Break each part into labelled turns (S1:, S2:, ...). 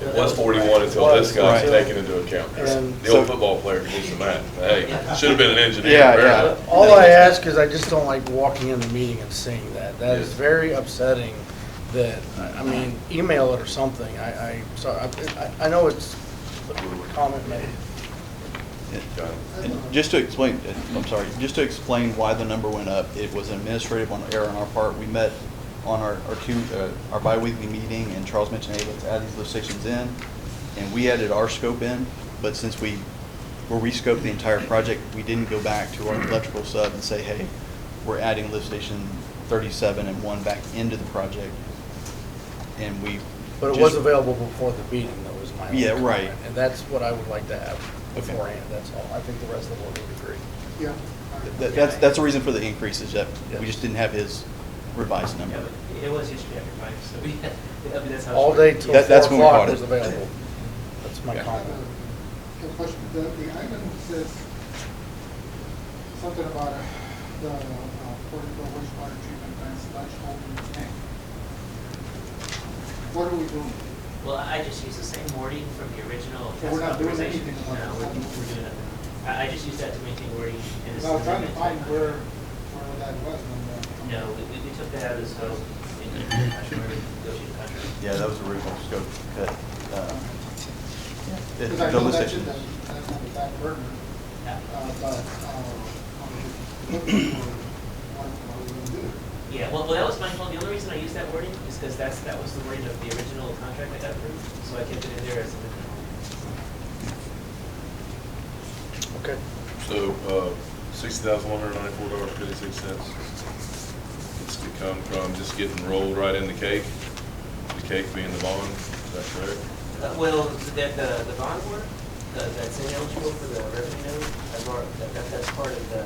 S1: It was forty-one until this guy's
S2: Right.
S1: taken into account.
S2: And-
S1: The old football player can do the math. Hey, should have been an engineer.
S3: Yeah,
S1: apparently.
S2: All I ask is I just don't like walking in the meeting and seeing that. That is
S1: Yes.
S2: very upsetting that, I I mean, email it or something. I, I, so I, I- I know it's a comment made.
S1: Got it.
S3: And Just to explain, I'm sorry, just to explain why the number went up, it was an administrative on- error on our part. We met on our, our two, uh, our bi-weekly meeting, and Charles mentioned, hey, let's add these lift stations in, and we added our scope in, but since we were re-scoped the entire project, we didn't go back to our electrical sub and say, hey, we're adding lift station thirty-seven and one back into the project, and we.
S2: But it
S3: just-
S2: was available before the meeting, that was my only
S3: Yeah, right.
S2: comment. And that's what I would like to have
S3: Okay.
S2: beforehand, that's all. I think the rest of the board would agree.
S4: Yeah.
S3: That, that's, that's the reason for the increase, is that
S2: Yeah.
S3: we just didn't have his revised number.
S5: Yeah, but It was yesterday after five, so we, I mean, that's how.
S2: All day till
S3: That-
S2: four
S3: that's when we
S2: o'clock
S3: caught it.
S2: was available. That's my
S3: Yeah.
S4: I have
S2: comment.
S4: a- a question. The, the item says something about uh, the uh, Portico wastewater treatment plant slash holding tank. What are we doing?
S5: Well, I just used the same wording from the
S4: So
S5: original task
S4: we're not doing
S5: authorization.
S4: anything about
S5: No,
S4: it.
S5: we're, we're doing nothing. I, I just used that to make the wording. in this
S4: I was trying to
S5: amendment.
S4: find where, where that was. when the-
S5: No, we, we- we took that out as well. in the contract, where we negotiated the contract.
S3: Yeah, that was the original scope cut. uh, the-
S4: Because I
S3: the
S4: know
S3: lift
S4: that's in the,
S3: stations.
S4: that's on the back burner,
S5: Yeah.
S4: uh, but, uh, I'm looking for what, what we're gonna do.
S5: Yeah, well, well, that was my fault. The only reason I used that wording is because that's, that was the wording of the original contract that got approved, so I kept it in there as an amendment.
S2: Okay.
S1: So, uh, six thousand one hundred ninety-four dollars fifty-six cents. It's to come from just getting rolled right in the cake, the cake being the bond, is that correct?
S5: Uh, Well, the, the, the bond work, uh, that's ineligible for the revenue note, I've already, that, that- that's part of the,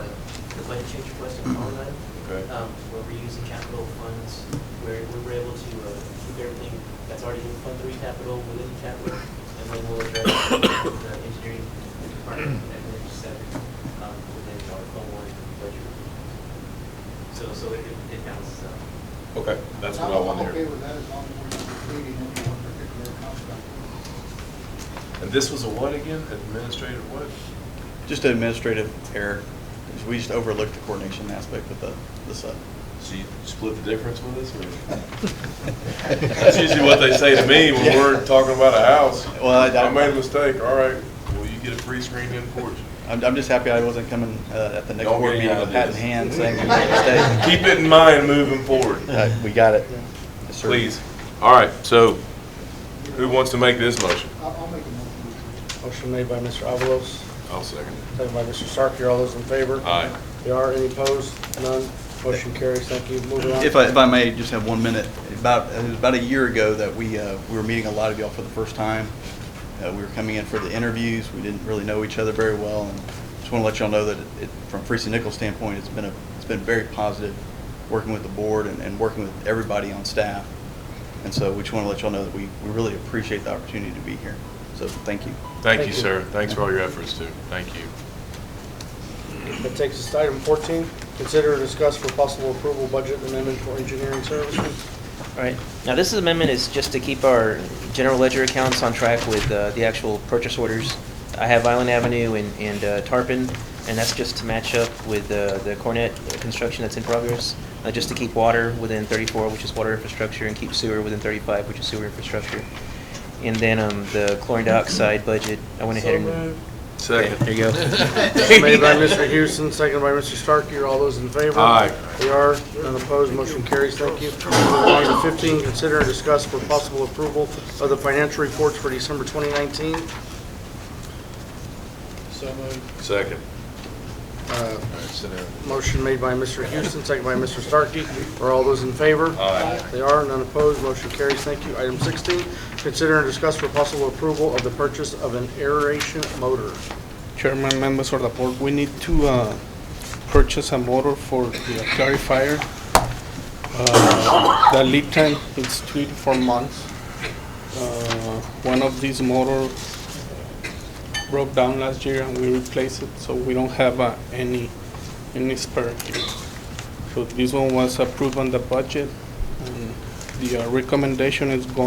S5: the budget change request in all that.
S1: Okay.
S5: Um, where we're using capital funds, where we were able to, uh, keep everything that's already in fund three capital within capital, and then we'll address the engineering department and then seven, um, within Article one budget. So, so it, it balances out.
S1: Okay, that's what I want to
S4: I'm okay
S1: hear.
S4: with that as long as we're not creating any one particular contract.
S1: And this was a what again? Administrative what?
S3: Just an administrative error. is We just overlooked the coordination aspect with the, the sub.
S1: So you split the difference with us or? That's usually what they say to me when we're talking about a house.
S3: Well, I- I-
S1: I made a mistake, all right, well, you get a free screen in porch.
S3: I'm, I'm just happy I wasn't coming uh, at the next
S1: Don't
S3: board
S1: get
S3: meeting
S1: out
S3: with
S1: of
S3: a hat in
S1: this.
S3: hand saying we made a mistake.
S1: Keep it in mind moving forward,
S3: Uh, We got it. Yes, sir.
S1: please. All right, so who wants to make this motion?
S4: I'll, I'll make a motion.
S2: Motion made by Mr. Avalos,
S1: I'll second it.
S2: second by Mr. Sarkar. All those in favor?
S1: Aye.
S2: There are any opposed? None. Motion carries. Thank you. Moving on.
S3: If I, if I may, just have one minute. About, it was about a year ago that we, uh, we were meeting a lot of y'all for the first time. Uh, we were coming in for the interviews. We didn't really know each other very well. And just want to let y'all know that it, from Freeston Nichols standpoint, it's been a, it's been very positive working with the board and, and working with everybody on staff. And so we just want to let y'all know that we, we really appreciate the opportunity to be here. So thank you.
S1: Thank
S2: Thank
S1: you,
S2: you.
S1: sir. Thanks for all your efforts, too. Thank you.
S2: That takes us to item 14, consider and discuss for possible approval budget amendment for engineering services.
S6: Right. Now, this amendment is just to keep our general ledger accounts on track with uh, the actual purchase orders. I have Island Avenue and and uh, Tarpon, and that's just to match up with uh, the Cornet construction that's in progress, uh, just to keep water within 34, which is water infrastructure, and keep sewer within 35, which is sewer infrastructure. And then um, the chlorine dioxide budget, I went ahead and...
S1: Second.
S6: There you go.
S2: Made by Mr. Houston, seconded by Mr. Starkey. All those in favor?
S1: Aye.
S2: They are. None opposed. Motion carries. Thank you. Moving on to 15, consider and discuss for possible approval of the financial reports for December 2019.
S1: Second.
S2: Uh,
S1: All right, sit down.
S2: Motion made by Mr. Houston, seconded by Mr. Starkey. Are all those in favor?
S1: Aye.
S2: They are, none opposed, motion carries, thank you. Item 16, consider and discuss for possible approval of the purchase of an aeration motor.
S7: Chairman, members of the board, we need to uh, purchase a motor for the clarifier. Uh, The lead time is three to four months. Uh, One of these motor broke down last year and we replaced it, so we don't have uh, any, any spare. here. So this one was approved on the budget. and The uh, recommendation is going